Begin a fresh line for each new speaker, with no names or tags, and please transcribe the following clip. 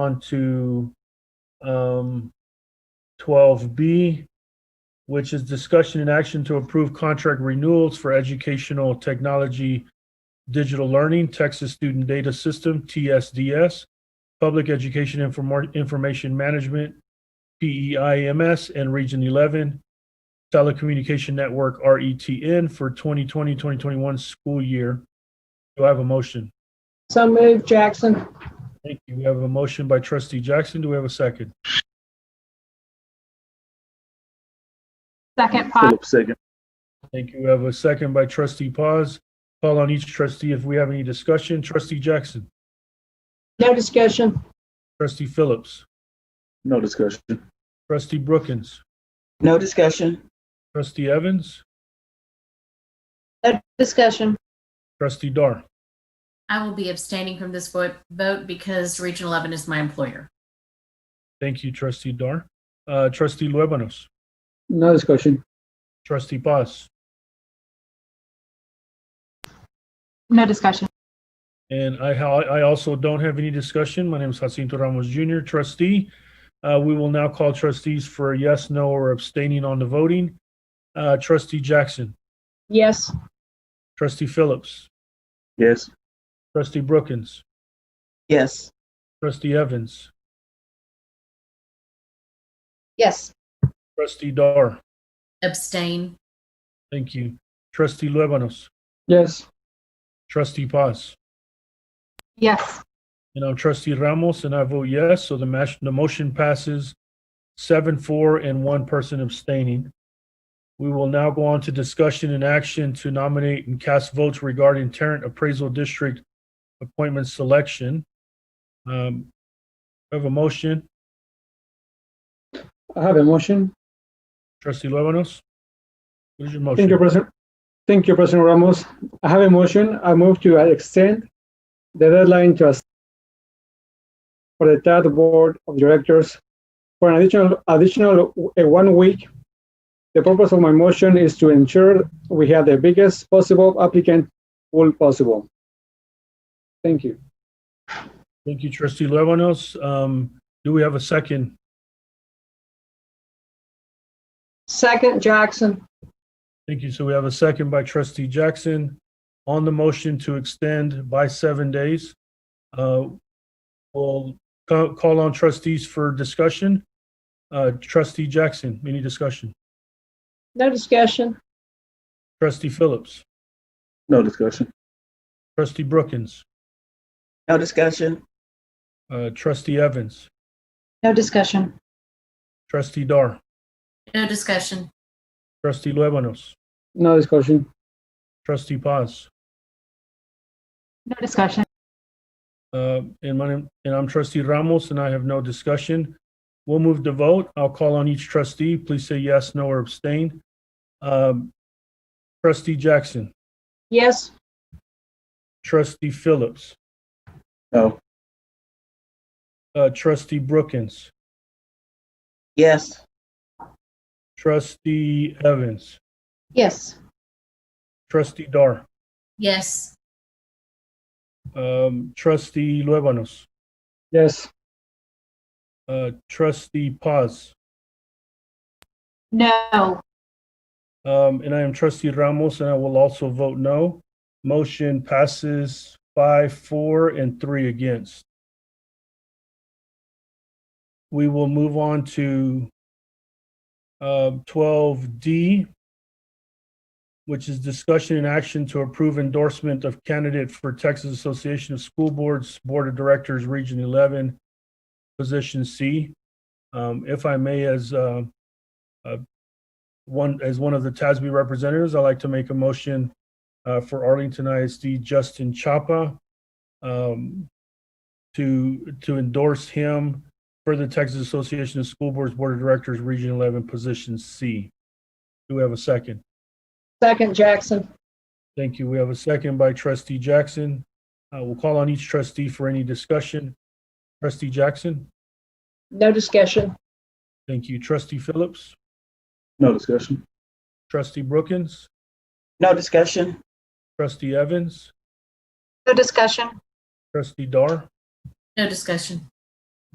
on to um, 12B, which is discussion and action to approve contract renewals for educational technology, digital learning, Texas Student Data System, TSDS, Public Education Inform- Information Management, E PEIMS, and Region 11, Telecommunication Network, RETN, for 2020, 2021 school year. Do I have a motion?
So moved, Jackson.
Thank you. We have a motion by trustee Jackson. Do we have a second?
Second, Pop.
Philip second.
Thank you. We have a second by trustee Paz. Call on each trustee if we have any discussion. Trustee Jackson,
No discussion.
trustee Phillips,
No discussion.
trustee Brookins,
No discussion.
trustee Evans,
No discussion.
trustee Dar.
I will be abstaining from this vo- vote because Region 11 is my employer.
Thank you, trustee Dar. Uh, trustee Luébanos,
No discussion.
trustee Paz,
No discussion.
and I, ha- I also don't have any discussion. My name is Jacinto Ramos Jr., trustee. Uh, we will now call trustees for a yes, no, or abstaining on the voting. Uh, trustee Jackson,
Yes.
trustee Phillips,
Yes.
Trustee Brookins,
Yes.
Trustee Evans,
Yes.
Trustee Dar,
Abstain.
thank you. Trustee Luébanos,
Yes.
Trustee Paz,
Yes.
and I'm Trustee Ramos, and I vote yes, so the mash, the motion passes seven, four, and one person abstaining. We will now go on to discussion and action to nominate and cast votes regarding Tarrant Appraisal District appointment selection. Um, I have a motion,
I have a motion.
Trustee Luébanos? What is your motion?
Thank you, President. Thank you, President Ramos. I have a motion. I move to extend the deadline to us for the TAD Board of Directors for an additional, additional uh, one week. The purpose of my motion is to ensure we have the biggest possible applicant pool possible. Thank you.
Thank you, trustee Luébanos. Um, do we have a second?
Second, Jackson.
Thank you. So we have a second by trustee Jackson on the motion to extend by seven days. Uh, we'll co- call on trustees for discussion. Uh, trustee Jackson, any discussion?
No discussion.
Trustee Phillips,
No discussion.
trustee Brookins,
No discussion.
uh, trustee Evans,
No discussion.
trustee Dar,
No discussion.
trustee Luébanos,
No discussion.
trustee Paz.
No discussion.
Uh, and my name, and I'm trustee Ramos, and I have no discussion. We'll move to vote. I'll call on each trustee. Please say yes, no, or abstain. Um, trustee Jackson,
Yes.
trustee Phillips,
No.
uh, trustee Brookins,
Yes.
trustee Evans,
Yes.
trustee Dar,
Yes.
um, trustee Luébanos,
Yes.
uh, trustee Paz,
No.
Um, and I am trustee Ramos, and I will also vote no. Motion passes five, four, and three against. We will move on to um, twelve D, which is discussion and action to approve endorsement of candidate for Texas Association of School Boards Board of Directors, Region Eleven, Position C. Um, if I may, as uh, one, as one of the TASB representatives, I'd like to make a motion uh, for Arlington ISD Justin Chapa um, to, to endorse him for the Texas Association of School Boards Board of Directors, Region 11, Position C. Do we have a second?
Second, Jackson.
Thank you. We have a second by trustee Jackson. Uh, We'll call on each trustee for any discussion. Trustee Jackson,
No discussion.
thank you. Trustee Phillips,
No discussion.
trustee Brookins,
No discussion.
trustee Evans,
No discussion.
trustee Dar,
No discussion.